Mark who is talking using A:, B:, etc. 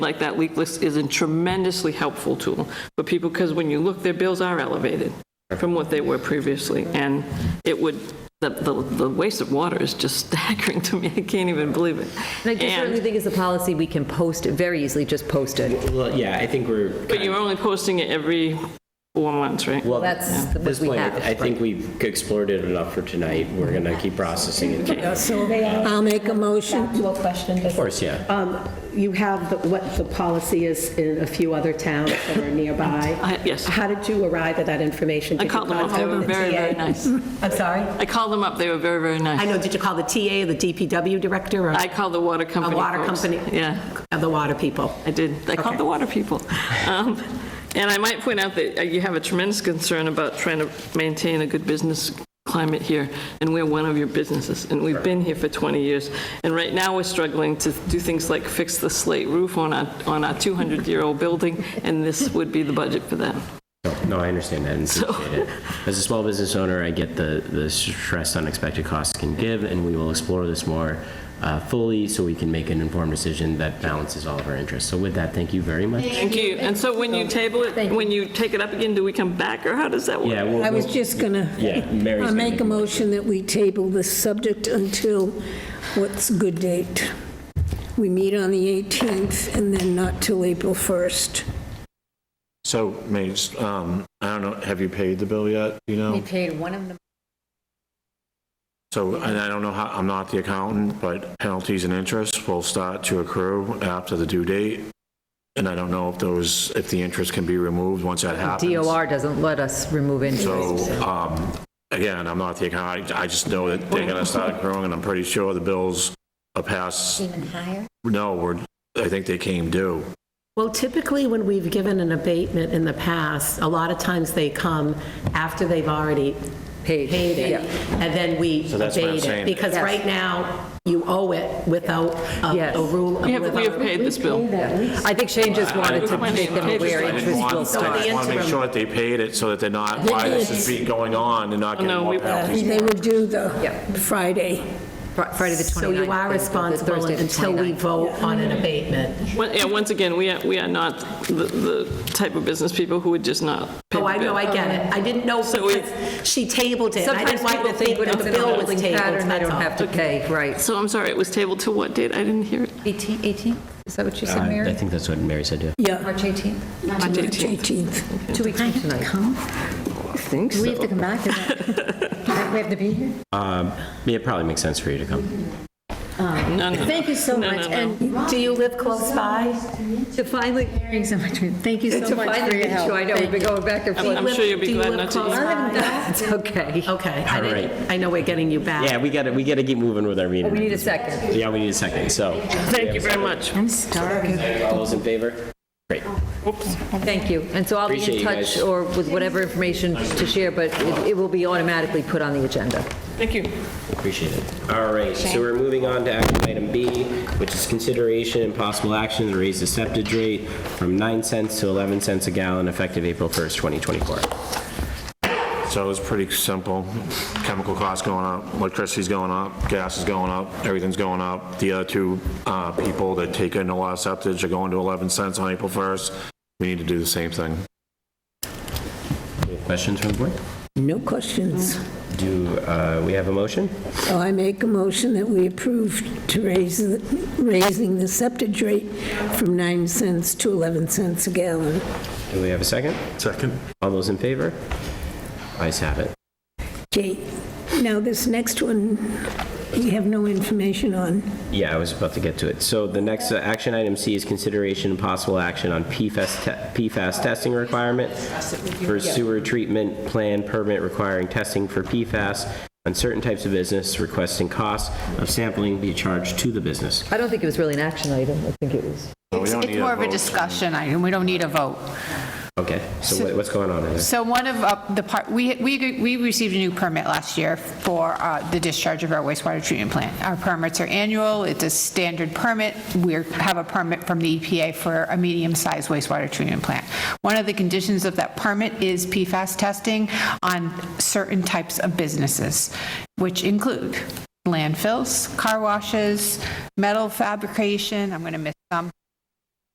A: like that leak list is a tremendously helpful tool for people, because when you look, their bills are elevated from what they were previously, and it would, the, the the waste of water is just staggering to me, I can't even believe it.
B: And I do certainly
A: And,
B: think it's a policy we can post, very easily just post it.
C: Well, yeah, I think we're.
A: but you're only posting it every four months, right?
C: Well,
B: That's
C: at
B: what
C: this
B: we
C: point,
B: have,
C: I think we've explored it enough for tonight. We're going to keep processing it. Of
D: So I'll make a motion.
E: To a question, just-
C: course, yeah.
F: Um, You have the- what the policy is in a few other towns that are nearby.
A: I- yes.
F: How did you arrive at that information?
A: I
F: Did you
A: called them up, they
F: contact
A: were
F: the
A: very,
F: TA?
A: very nice.
F: I'm sorry?
A: I called them up, they were very, very
F: I
A: nice.
F: know, did you call the TA or the DPW director or
A: I called the water company
F: A water
A: folks.
F: company.
A: Yeah.
F: or the water people?
A: I did. I called
F: Okay.
A: the water people. Um, And I might point out that uh, you have a tremendous concern about trying to maintain a good business climate here, and we're one of your businesses, and we've been here for 20 years. And right now, we're struggling to do things like fix the slate roof on our, on our 200-year-old building, and this would be the budget for that.
C: No, No, I understand that and appreciate it. As a small business owner, I get the, the stress unexpected costs can give, and we will explore this more uh, fully so we can make an informed decision that balances all of our interests. So with that, thank you very much.
A: Thank you. And so when you table it, when you take it up again, do we come back, or how does that work?
C: Yeah, we'll-
D: I was just gonna.
C: Yeah, Mary's
D: I
C: gonna
D: make
C: make
D: a
C: a
D: motion that we table this subject until what's a good date? We meet on the 18th and then not till April 1st.
G: So, Mace, um, I don't know, have you paid the bill yet, you know?
B: paid one of them.
G: So, and I don't know how, I'm not the accountant, but penalties and interest will start to accrue after the due date. And I don't know if those, if the interest can be removed once that happens.
B: DOR doesn't let us remove
G: So,
B: interest.
G: um, again, I'm not the accountant, I just know that they're gonna start accruing, and I'm pretty sure the bills are past,
E: Even higher?
G: no, we're, I think they came due.
F: Well, typically, when we've given an abatement in the past, a lot of times they come after they've already
B: Paid,
F: paid it,
B: yeah.
F: and then we
G: So that's what I'm
F: abate it.
G: saying.
F: Because
B: Yes.
F: right now, you owe it without a
B: Yes.
F: a rule.
A: We have, we have paid this bill.
B: I think Shane just wanted to
A: Well, I-
B: make them
A: I-
B: aware
A: I didn't
B: interest will
G: I
B: start.
G: just wanna make sure that they paid it, so that they're not, why this is be- going on and not getting
A: No, we-
G: more penalties.
D: Uh, They were due the
B: Yeah.
D: Friday.
B: Fri- Friday the 29th.
F: So you are
B: the- the
F: responsible
B: Thursday the
F: until we
B: 29th.
F: vote on an abatement.
A: Well, Yeah, once again, we are, we are not the, the type of business people who would just not pay the
F: Oh, I know,
A: bill.
F: I get it. I didn't know
A: So we-
F: because she tabled it. and I
B: Sometimes
F: didn't want
B: people
F: to think
B: think when
F: that
B: it's
F: the
B: in a
F: bill was
B: holding
F: tabled,
B: pattern, they
F: that's
B: don't
F: all.
B: have to pay, right.
A: So I'm sorry, it was tabled to what date? I didn't hear it.
E: 18, 18? Is that what you said,
C: uh, I
E: Mary?
C: think that's what Mary said, yeah.
D: Yeah,
E: March 18th?
A: March
D: March 18th.
B: Two weeks from tonight.
A: I think
E: Do we have to come back? Is that- We have to be here?
C: Yeah, It probably makes sense for you to come.
A: No, no, no.
E: Thank you so
A: No, no,
E: much.
A: no.
E: And
F: Do you live close by?
E: to finally, hearing so much, thank you so
B: To
E: much for
B: finally
E: your
B: get
E: help.
B: you, I know, we've been going back and forth.
A: I'm sure you'll be
F: Do you
A: glad
F: live
A: not to.
F: close
A: use-
F: by?
B: It's okay.
F: Okay, I
C: All
F: didn't, I know we're getting you back.
C: Yeah, we gotta, we gotta keep moving with our meeting.
B: Oh, We need a second.
C: Yeah, we need a second, so.
A: Thank you very much.
E: I'm starving.
C: All those in favor? Great.
B: Thank you. And so I'll be
C: Appreciate
B: in
C: you
B: touch
C: guys.
B: or with whatever information to share, but it- it will be automatically put on the agenda.
A: Thank you.
C: Appreciate it. All right, so we're moving on to action item B, which is consideration and possible action to raise the septage rate from 9 cents to 11 cents a gallon effective April 1st, 2024.
G: So it's pretty simple. Chemical costs going up, electricity's going up, gas is going up, everything's going up. The other two uh, people that take in a lot of septic are going to 11 cents on April 1st. We need to do the same thing.
C: Any Questions from the board?
D: No questions.
C: Do uh, we have a motion?
D: So I make a motion that we approve to raise, the- raising the septic rate from 9 cents to 11 cents a gallon.
C: Do we have a second?
G: Second.
C: All those in favor? Ayes have it.
D: Okay, now this next one, we have no information on.
C: Yeah, I was about to get to it. So the next uh, action item C is consideration and possible action on PFAS, te- PFAS testing requirement for sewer treatment plan permit requiring testing for PFAS on certain types of business requesting costs of sampling be charged to the business.
B: I don't think it was really an action item. I think it was.
H: It's it's more of a discussion item, we don't need a vote.
C: Okay, so what- what's going on in there?
H: So one of uh, the part, we, we we received a new permit last year for uh, the discharge of our wastewater treatment plant. Our permits are annual, it's a standard permit, we have a permit from the EPA for a medium-sized wastewater treatment plant. One of the conditions of that permit is PFAS testing on certain types of businesses, which include landfills, car washes, metal fabrication, I'm going to miss some,